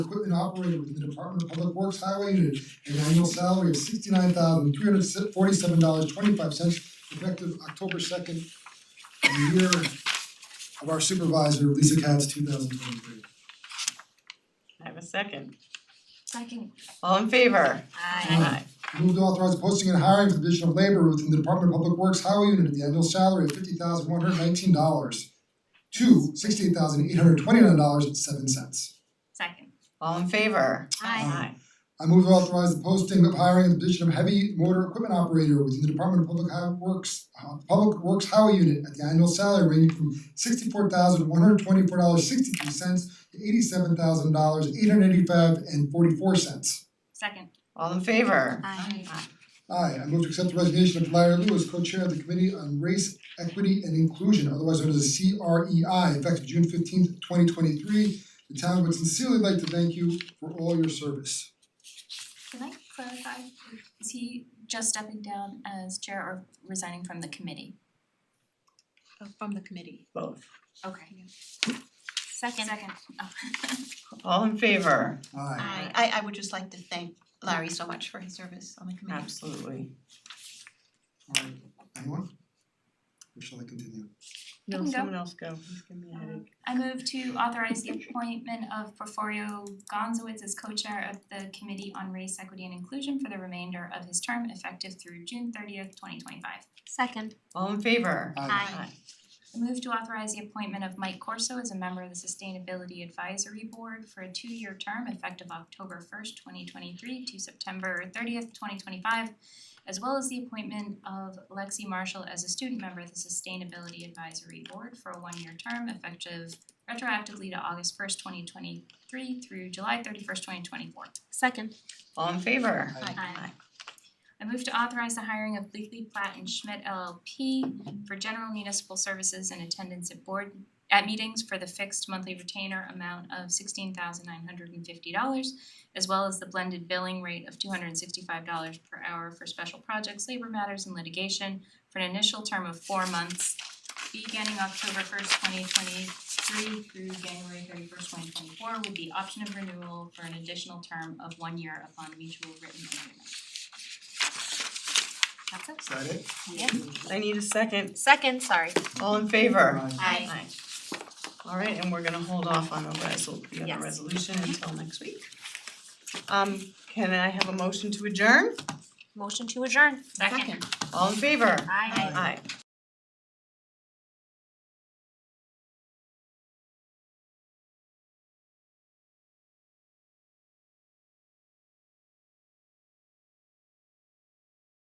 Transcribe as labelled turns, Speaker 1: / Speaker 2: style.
Speaker 1: equipment operator with the Department of Public Works Highway Unit, an annual salary of sixty nine thousand three hundred forty seven dollars twenty five cents effective October second, the year of our supervisor, Lisa Katz, two thousand twenty three.
Speaker 2: I have a second.
Speaker 3: Second.
Speaker 2: All in favor?
Speaker 3: Aye.
Speaker 1: Move to authorize posting and hiring for the division of labor within the Department of Public Works Highway Unit at the annual salary of fifty thousand one hundred nineteen dollars to sixty eight thousand eight hundred twenty nine dollars and seven cents.
Speaker 3: Second.
Speaker 2: All in favor?
Speaker 3: Aye.
Speaker 1: I move to authorize the posting of hiring in the position of heavy motor equipment operator within the Department of Public Hi- Works, uh, Public Works Highway Unit at the annual salary ranging from sixty-four thousand one hundred twenty-four dollars sixty-three cents to eighty-seven thousand dollars eight hundred eighty-five and forty-four cents.
Speaker 3: Second.
Speaker 2: All in favor?
Speaker 3: Aye.
Speaker 1: Aye, I move to accept the resignation of Larry Lewis, co-chair of the Committee on Race, Equity and Inclusion, otherwise known as the CREI, effective June fifteenth, twenty twenty-three. The town would sincerely like to thank you for all your service.
Speaker 3: Can I clarify, is he just stepping down as chair or resigning from the committee?
Speaker 4: uh, from the committee.
Speaker 2: Both.
Speaker 3: Okay. Second. Second. Oh.
Speaker 2: All in favor?
Speaker 1: Aye.
Speaker 4: I I I would just like to thank Larry so much for his service on the committee.
Speaker 2: Absolutely.
Speaker 1: Alright, anyone? Or shall I continue?
Speaker 3: You can go.
Speaker 2: else go, he's giving me a headache.
Speaker 3: I move to authorize the appointment of Porforio Gonzowitz as co-chair of the Committee on Race, Equity and Inclusion for the remainder of his term effective through June thirtieth, twenty twenty-five.
Speaker 5: Second.
Speaker 2: All in favor?
Speaker 1: Aye.
Speaker 3: I move to authorize the appointment of Mike Corso as a member of the Sustainability Advisory Board for a two-year term effective October first, twenty twenty-three to September thirtieth, twenty twenty-five, as well as the appointment of Lexi Marshall as a student member of the Sustainability Advisory Board for a one-year term effective retroactively to August first, twenty twenty-three through July thirty-first, twenty twenty-four.
Speaker 5: Second.
Speaker 2: All in favor?
Speaker 1: Aye.
Speaker 3: Aye. I move to authorize the hiring of Bleakley Platt and Schmidt LLP for general municipal services and attendance at board at meetings for the fixed monthly retainer amount of sixteen thousand nine hundred and fifty dollars as well as the blended billing rate of two hundred and sixty-five dollars per hour for special projects, labor matters and litigation for an initial term of four months beginning October first, twenty twenty-three through January thirty-first, twenty twenty-four with the option of renewal for an additional term of one year upon mutual written agreement. That's it.
Speaker 1: Is that it?
Speaker 5: Yep.
Speaker 2: I need a second.
Speaker 5: Second, sorry.
Speaker 2: All in favor?
Speaker 1: Aye.
Speaker 5: Aye.
Speaker 2: All right, and we're gonna hold off on the resol- the
Speaker 5: Yes.
Speaker 2: other resolution until next week. Um, can I have a motion to adjourn?
Speaker 5: Motion to adjourn.
Speaker 3: Second.
Speaker 2: All in favor?
Speaker 5: Aye.
Speaker 2: Aye.